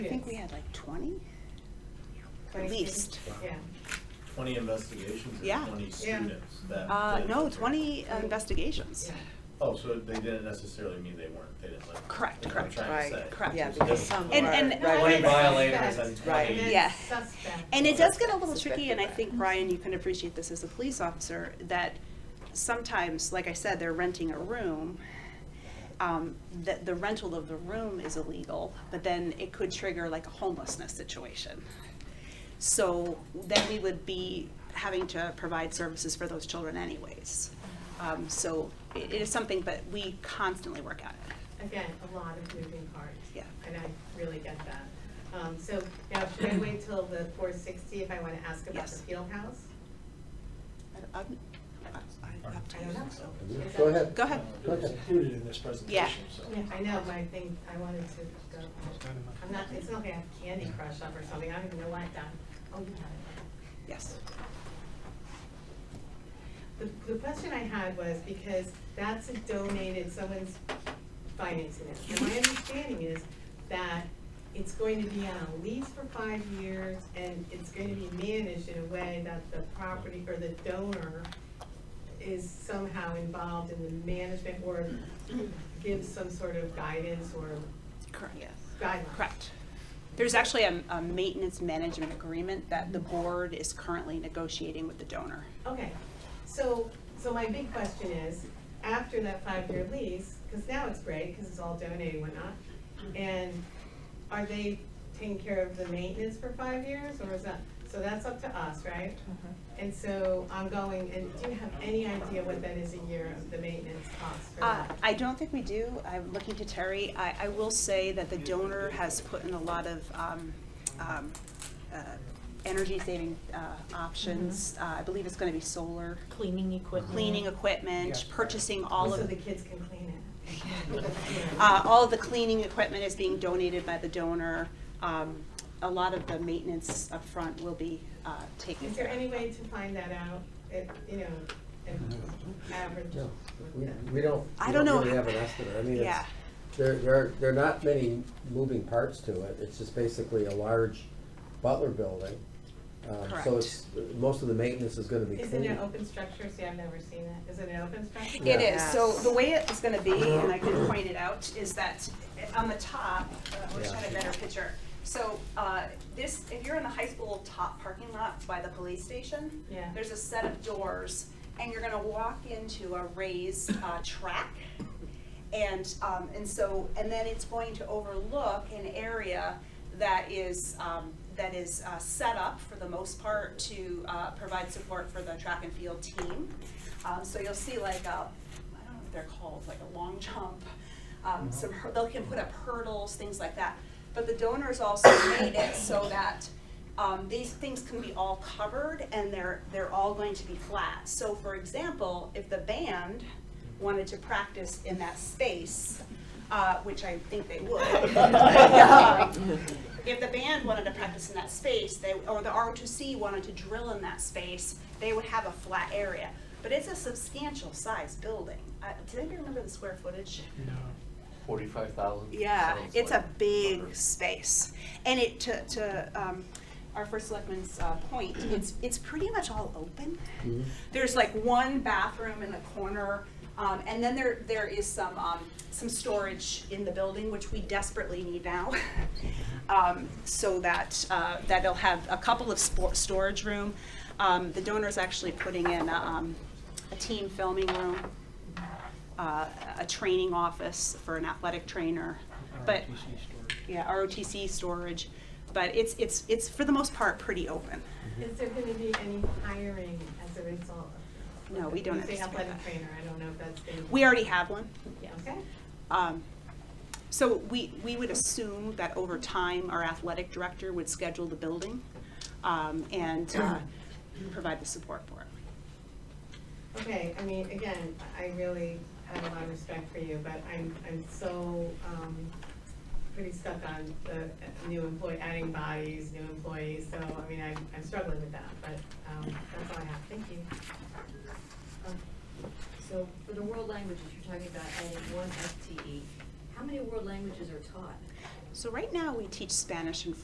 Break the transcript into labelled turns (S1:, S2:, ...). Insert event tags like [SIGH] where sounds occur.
S1: think we had like 20? At least.
S2: Yeah.
S3: Twenty investigations
S1: Yeah.
S3: or twenty
S2: Yeah.
S3: students that.
S1: Uh,
S3: did
S1: no,
S3: the-
S1: 20 investigations.
S3: Oh, so they didn't necessarily mean they weren't, they didn't like.
S1: Correct,
S3: that's what I'm
S1: correct.
S3: trying to
S4: Right,
S3: say.
S1: correct.
S4: Yeah,
S3: It's
S4: because
S3: different.
S4: some
S1: And-
S4: are-
S1: and-
S4: right.
S3: Twenty
S2: Right.
S3: violators and
S4: Right.
S3: twenty.
S1: Yeah.
S2: It's Suspect.
S1: And it does get a little
S4: Suspected
S1: tricky, and I
S4: that.
S1: think, Brian, you can appreciate this as a police officer, that sometimes, like I said, they're renting a room. Um, that the rental of the room is illegal, but then it could trigger like a homelessness situation. So then we would be having to provide services for those children anyways. Um, so it, it is something that we constantly work at.
S2: Again, a lot of moving parts.
S1: Yeah.
S2: And I really get that. Um, so now, should I wait till the four sixty if I want to ask about the
S1: Yes.
S2: field house?
S1: I- I'm- I- I-
S2: I don't know. Is
S5: Go
S2: that-
S5: ahead.
S1: Go ahead.
S5: Go
S6: It's
S5: ahead.
S6: included in this presentation, so.
S2: Yeah, I know, my thing, I wanted to go, I'm not, it's not like I have Candy Crush up or something, I don't even know why I done. Oh, you have
S1: Yes.
S2: it. The, the question I had was because that's a donated, someone's financing it. And my understanding is that it's going to be on a lease for five years and it's going to be managed in a way that the property or the donor is somehow involved in the management or gives some sort of guidance or
S1: Correct. Yes.
S2: guidelines.
S1: Correct. There's actually a, a maintenance management agreement that the board is currently negotiating with the donor.
S2: Okay, so, so my big question is, after that five-year lease, because now it's great, because it's all donated and whatnot, and are they taking care of the maintenance for five years, or is that, so that's up to us, right? And so I'm going, and do you have any idea what that is a year of the maintenance cost for
S1: Uh,
S2: that?
S1: I don't think we do. I'm looking to Terry. I, I will say that the donor has put in a lot of, um, um, uh, energy saving, uh, options.
S2: Mm-hmm.
S1: Uh, I believe it's gonna be solar,
S7: Cleaning equipment.
S1: cleaning equipment, purchasing all
S2: So
S1: of
S2: the
S1: the,
S2: kids can clean it.
S1: [LAUGHS] uh, all of the cleaning equipment is being donated by the donor. Um, a lot of the maintenance upfront will be, uh, taken.
S2: Is there
S1: care of.
S2: any way to find that out, if, you know, if average?
S5: No, we, we don't,
S1: I
S5: we
S1: don't
S5: don't
S1: know
S5: really
S1: how-
S5: have an estimate. I mean,
S1: Yeah.
S5: it's, there, there, are- there are not many moving parts to it. It's just basically a large Butler building. Um,
S1: Correct.
S5: So it's, most of the maintenance is gonna be clean.
S2: Isn't it open structure? See, I've never seen it. Is it an open structure?
S1: It is,
S4: Yes.
S1: so the way it's gonna be,
S5: Uh-huh.
S1: and I can point it out, is that on the top, uh, which
S5: Yeah.
S1: had a better picture. So, uh, this, if you're in the high school top parking lot by the police station,
S2: Yeah.
S1: there's a set of doors, and you're gonna walk into a raised, uh, track. And, um, and so, and then it's going to overlook an area that is, um, that is, uh, set up for the most part to, uh, provide support for the track and field team. Um, so you'll see like a, I don't know what they're called, like a long jump, um, some, hur- they can put up hurdles, things like that. But the donors also made it so that, um, these things can be all covered and they're, they're all going to be flat. So for example, if the band wanted to practice in that space, uh, which I think they would. [LAUGHS] um, If the band wanted to practice in that space, they, or the ROTC wanted to drill in that space, they would have a flat area. But it's a substantial size building. Uh, does anybody remember the square footage?
S8: Forty-five thousand?
S1: Yeah, it's a big space. And it, to, to, um, our first selectman's, uh, point, it's, it's pretty much all open. There's like one bathroom in the corner, um, and then there, there is some, um, some storage in the building, which we desperately need now. [LAUGHS] Um, so that, uh, that they'll have a couple of sport, storage room. Um, the donor's actually putting in, a, um, a team filming room uh, a training office for an athletic trainer. But, yeah, ROTC storage, but it's, it's, it's for the most part pretty open.
S2: Is there gonna be any hiring as a result of?
S1: No, we don't
S2: You say
S1: anticipate
S2: athletic
S1: that.
S2: trainer, I don't know if that's been.
S1: We already have one.
S2: Okay,
S1: Um, So we, we would assume that over time, our athletic director would schedule the building um, and uh, provide the support for it.
S2: okay, I mean, again, I really have a lot of respect for you, but I'm, I'm so, um, pretty stuck on the new employee, adding bodies, new employees, so, I mean, I'm, I'm struggling with that, but, um, that's all I have, thank you.
S9: So for the world languages, you're talking about adding one FTE. E. How
S4: How many world languages are taught?
S1: So right now, we teach Spanish and